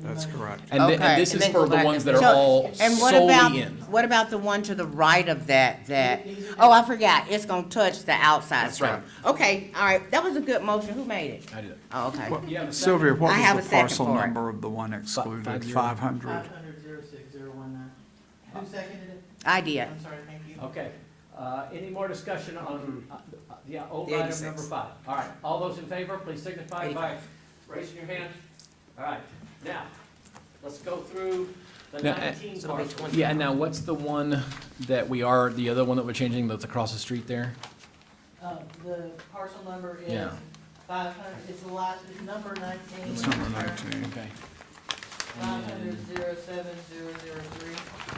That's correct. And, thi- Okay, and this and is then for go the back ones that and- are So- all And what solely about, in. what about the one to the right of that, that, oh, I forgot, it's gonna touch the outside That's right. stuff. Okay, all right, that was a good motion, who made it? I did it. Oh, okay. Well, have a second? Sylvia, what I have a was the second parcel for it. number of the one excluded? zero. Five hundred. Five hundred zero six zero one nine. Who seconded it? I did. I'm sorry, thank you. Okay, uh, any more discussion Mm-hmm. on, uh, uh, yeah, old item number 86. five? All right, all those in favor, please signify by raising your hand. All right, now, let's go through the Now, uh, nineteen So it'll be parcels. Yeah, and now what's the one that we are, the other one that we're changing that's across the street there? Uh, the parcel number is Yeah. five hundred, it's the last, it's number nineteen. It's number nineteen. Okay. Five hundred zero seven zero zero three.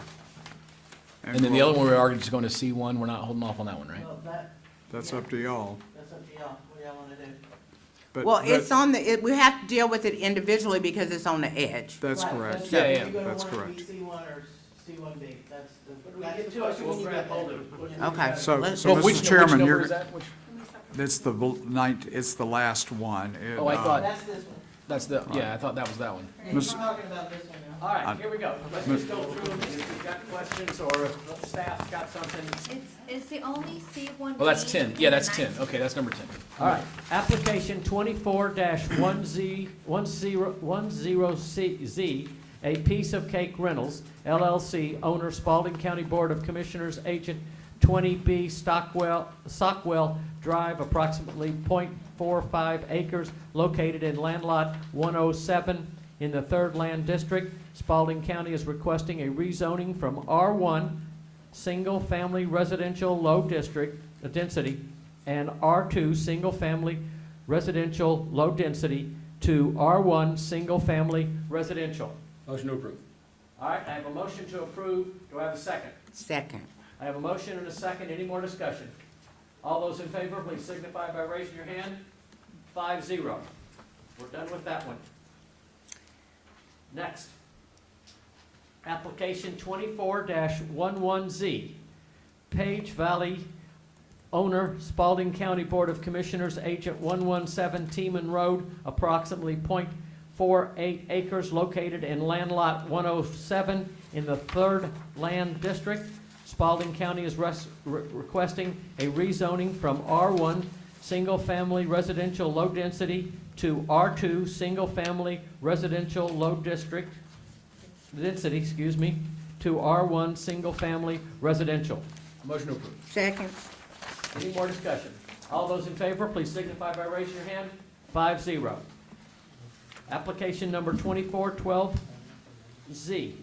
And then the other one, we are just going to C one, we're not holding off on that one, right? Well, that, That's up to y'all. that's up to y'all, what y'all wanna do. But Well, that- it's on the, it- we have to deal with it individually because it's on the edge. That's Right, correct. Yeah, yeah, You're gonna that's want it to correct. be C one or C one B, that's the, we that's get the to it, question we'll when you grab get hold there. of it. When you Okay, get So, Let's- so Well, which- Mr. which Chairman, number you're, is that? Which- that's the bl- nine, it's the last one. It, Oh, I uh, thought- there. That's this one. That's the, yeah, I thought that was that one. We're Miss- talking about this one now. All right, I'm- here we go. Let's just go through them, if you've got questions or if the staff's got something. It's, it's the only C one. Well, Oh, that's ten, yeah, that's ten, okay, that's number ten. All right, application twenty-four one Z, one zero, one zero C, Z, A Piece of Cake Rentals LLC, owner Spalding County Board of Commissioners, agent twenty B Stockwell, Stockwell Drive, approximately 0.45 acres, located in land lot one oh seven in the Third Land District. Spalding County is requesting a rezoning from R one, single-family residential low district, uh, density, and R2, single-family residential, low density, to R1, single-family residential. Motion to approve. All right, I have a motion to approve. Do I have a second? Second. I have a motion and a second. Any more discussion? All those in favor, please signify by raising your hand. Five zero. We're done with that one. Next. Application twenty-four 11Z. Page Valley owner, Spalding County Board of Commissioners, agent 117 Teeman Road, approximately .48 acres located in land lot 107 in the Third Land District. Spalding County is res- re- requesting a rezoning from R1, single-family residential low density, to R2, single-family residential low district, density, excuse me, to R1, single-family residential. Motion to approve. Second. Any more discussion? All those in favor, please signify by raising your hand. Five zero. Application number twenty-four twelve Z.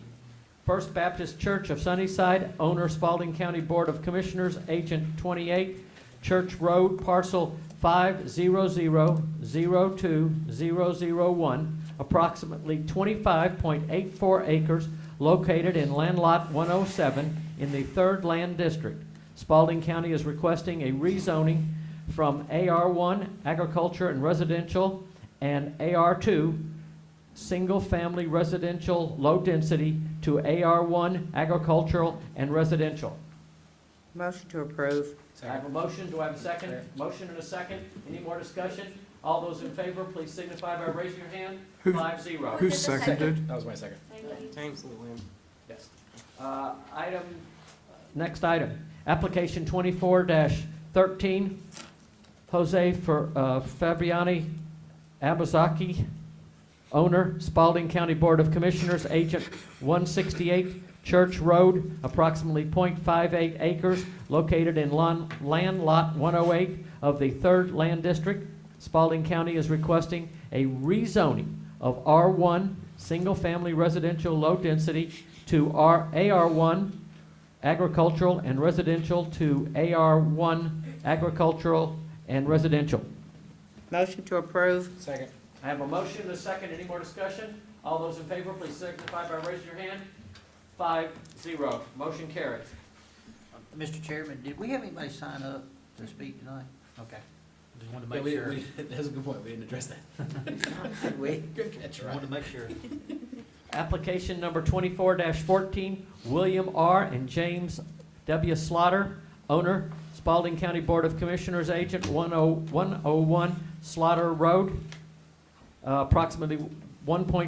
First Baptist Church of Sunnyside, owner Spalding County Board of Commissioners, agent twenty-eight, Church Road, parcel five zero zero zero two zero zero one, approximately twenty-five point eight four acres, located in land lot one oh seven in the Third Land District. Spalding County is requesting a rezoning from AR1 Agriculture and Residential and AR2 Single Family Residential Low Density to AR1 Agricultural and Residential. Motion to approve. I have a motion, do I have a second? Motion and a second, any more discussion? All those in favor, please signify by raising your hand, Who- five zero. Who Who did the second? seconded? That was my second. Yes. Uh, Item, next item, application twenty-four thirteen, Jose Fer- uh, Fabiani Abazaki, owner, Spalding County Board of Commissioners, agent one sixty-eight Church Road, approximately 0.58 acres, located in lon- land lot one oh eight of the Third Land District. Spalding County is requesting a rezoning of R one, single-family residential low density, to R, AR1 agricultural and residential to AR1 agricultural and residential. Motion to approve. Second. I have a motion and a second. Any more discussion? All those in favor, please signify by raising your hand. Five, zero. Motion carries. Mr. Chairman, did we have anybody sign up to speak tonight? Okay. Just wanted Yeah, to we, make sure. we, that's a good point, we didn't address that. We Good catch, wanted to make sure. Application number twenty-four fourteen, William R. and James W. Slaughter, owner, Spalding County Board of Commissioners, agent one oh, one oh one Slaughter Road, uh, approximately one point